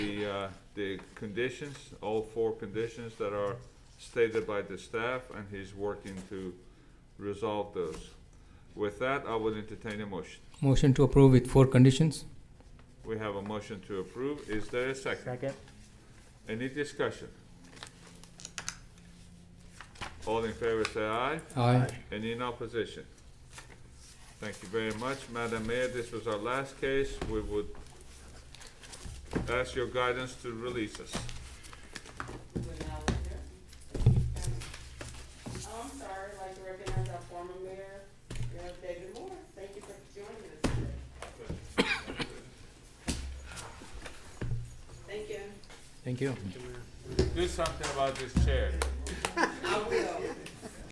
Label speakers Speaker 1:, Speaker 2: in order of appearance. Speaker 1: the, uh, the conditions, all four conditions that are stated by the staff, and he's working to resolve those. With that, I would entertain a motion.
Speaker 2: Motion to approve with four conditions.
Speaker 1: We have a motion to approve. Is there a second?
Speaker 3: Second.
Speaker 1: Any discussion? All in favor say aye.
Speaker 2: Aye.
Speaker 1: Any in opposition? Thank you very much. Madam Mayor, this was our last case. We would ask your guidance to release us.
Speaker 4: Would now adjourn. I'm sorry, I'd like to recognize our former mayor, Mayor David Moore. Thank you for joining us today. Thank you.
Speaker 2: Thank you.
Speaker 1: Do something about this chair.
Speaker 4: I will.